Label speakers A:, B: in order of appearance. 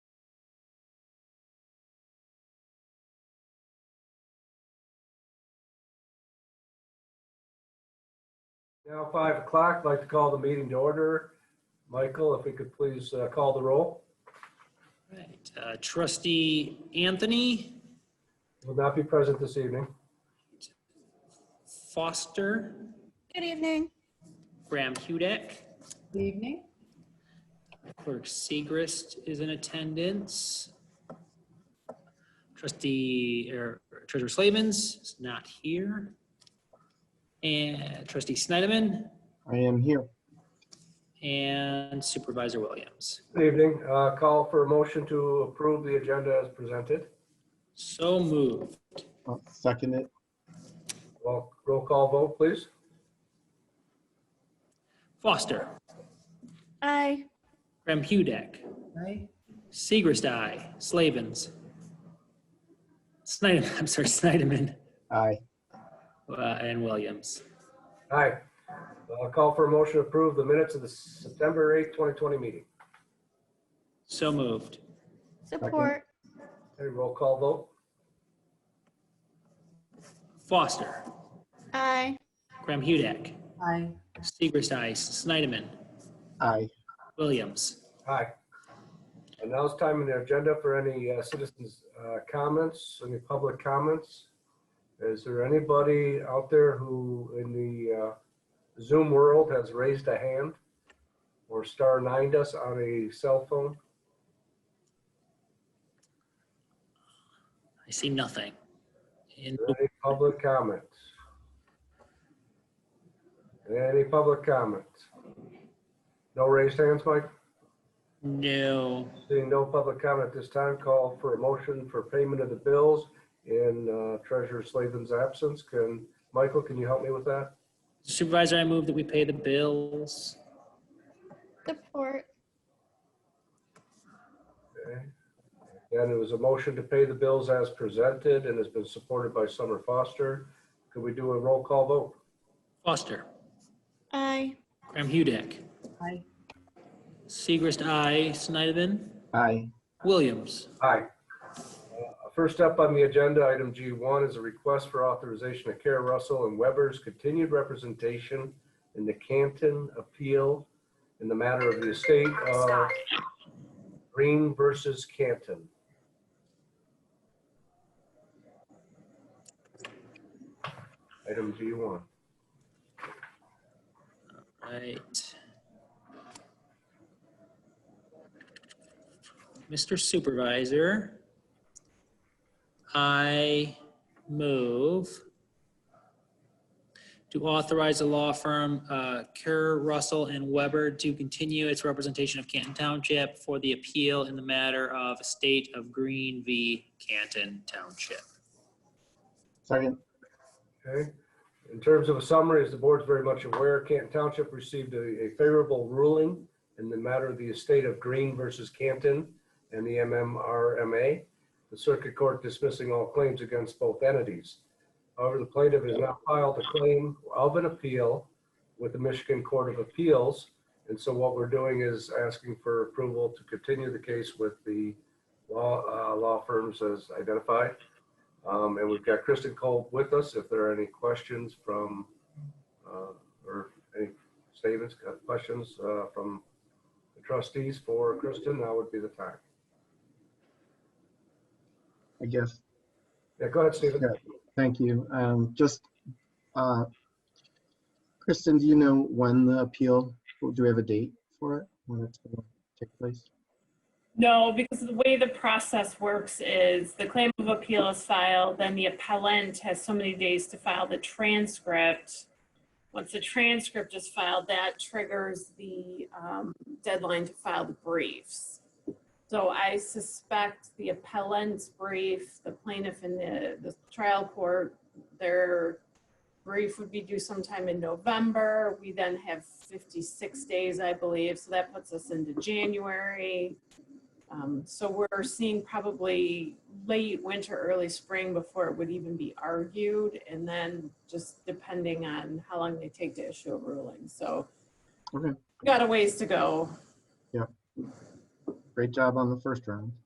A: Now, five o'clock, I'd like to call the meeting to order. Michael, if we could please uh, call the roll.
B: Right, uh, trustee Anthony
A: Will not be present this evening.
B: Foster,
C: Good evening.
B: Graham Hudek,
C: Good evening.
B: clerk Segrist is in attendance. Trustee, or treasurer Slavens is not here. And trustee Snyderman
D: I am here.
B: and supervisor Williams.
A: Good evening. Uh, Call for a motion to approve the agenda as presented.
B: So moved.
D: I'll Oh, second it.
A: Well, roll call vote, please.
B: Foster,
C: Aye.
B: Graham Hudek,
C: Aye.
B: Segrist, I, Slavens. Snyder, I'm sorry, Snyderman
D: Aye.
B: uh, and Williams.
A: Aye. Uh, Call for a motion to approve the minutes of the September 8th, 2020 meeting.
B: So moved.
C: Support.
A: Okay, roll call vote.
B: Foster,
C: Aye.
B: Graham Hudek,
C: Aye.
B: Segrist Ice, Snyderman,
D: Aye.
B: Williams.
A: Aye. And now it's time in the agenda for any uh, citizens' uh, comments, any public comments. Is there anybody out there who in the uh, Zoom world has raised a hand or star nined us on a cell phone?
B: I see nothing. In-
A: Is there Any public comments? Any public comments? No raised hands, Mike?
B: no.
A: Seeing no public comment at this time, call for a motion for payment of the bills in uh, Treasurer Slavin's absence. Can, Michael, can you help me with that?
B: Supervisor, I move that we pay the bills.
C: Support.
A: Okay. And it was a motion to pay the bills as presented and has been supported by Summer Foster. Could we do a roll call vote?
B: Foster,
C: Aye.
B: Graham Hudek,
C: Aye.
B: Segrist I, Snyderman,
D: Aye.
B: Williams.
A: Aye. Uh, First up on the agenda, item G1 is a request for authorization of Kara Russell and Weber's continued representation in the Canton appeal in the matter of the estate of Green versus Canton. Item G1.
B: Right. Mr. Supervisor, I move to authorize the law firm uh, Kerr, Russell, and Weber to continue its representation of Canton Township for the appeal in the matter of estate of Green v. Canton Township.
D: Second.
A: Okay. In terms of a summary, as the board's very much aware, Canton Township received a a favorable ruling in the matter of the estate of Green versus Canton and the MMRMA, the circuit court dismissing all claims against both entities. However, the plaintiff has now filed a claim of an appeal with the Michigan Court of Appeals. And so what we're doing is asking for approval to continue the case with the law, uh, law firms as identified. Um, and we've got Kristen Cole with us. If there are any questions from, uh, or any statements, uh, questions, uh, from the trustees for Kristen, now would be the time.
D: I guess.
A: Yeah, go ahead, Stephen.
D: Yeah. Thank you. Um, just, uh, Kristen, do you know when the appeal, do we have a date for it? When it's going to take place?
E: No, because the way the process works is the claim of appeal is filed, then the appellant has so many days to file the transcript. Once the transcript is filed, that triggers the um, deadline to file the briefs. So I suspect the appellant's brief, the plaintiff and the, the trial court, their brief would be due sometime in November. We then have 56 days, I believe, so that puts us into January. Um, So we're seeing probably late winter, early spring before it would even be argued. And then just depending on how long they take to issue a ruling. So
D: Okay.
E: we got a ways to go.
D: Great job on the first round.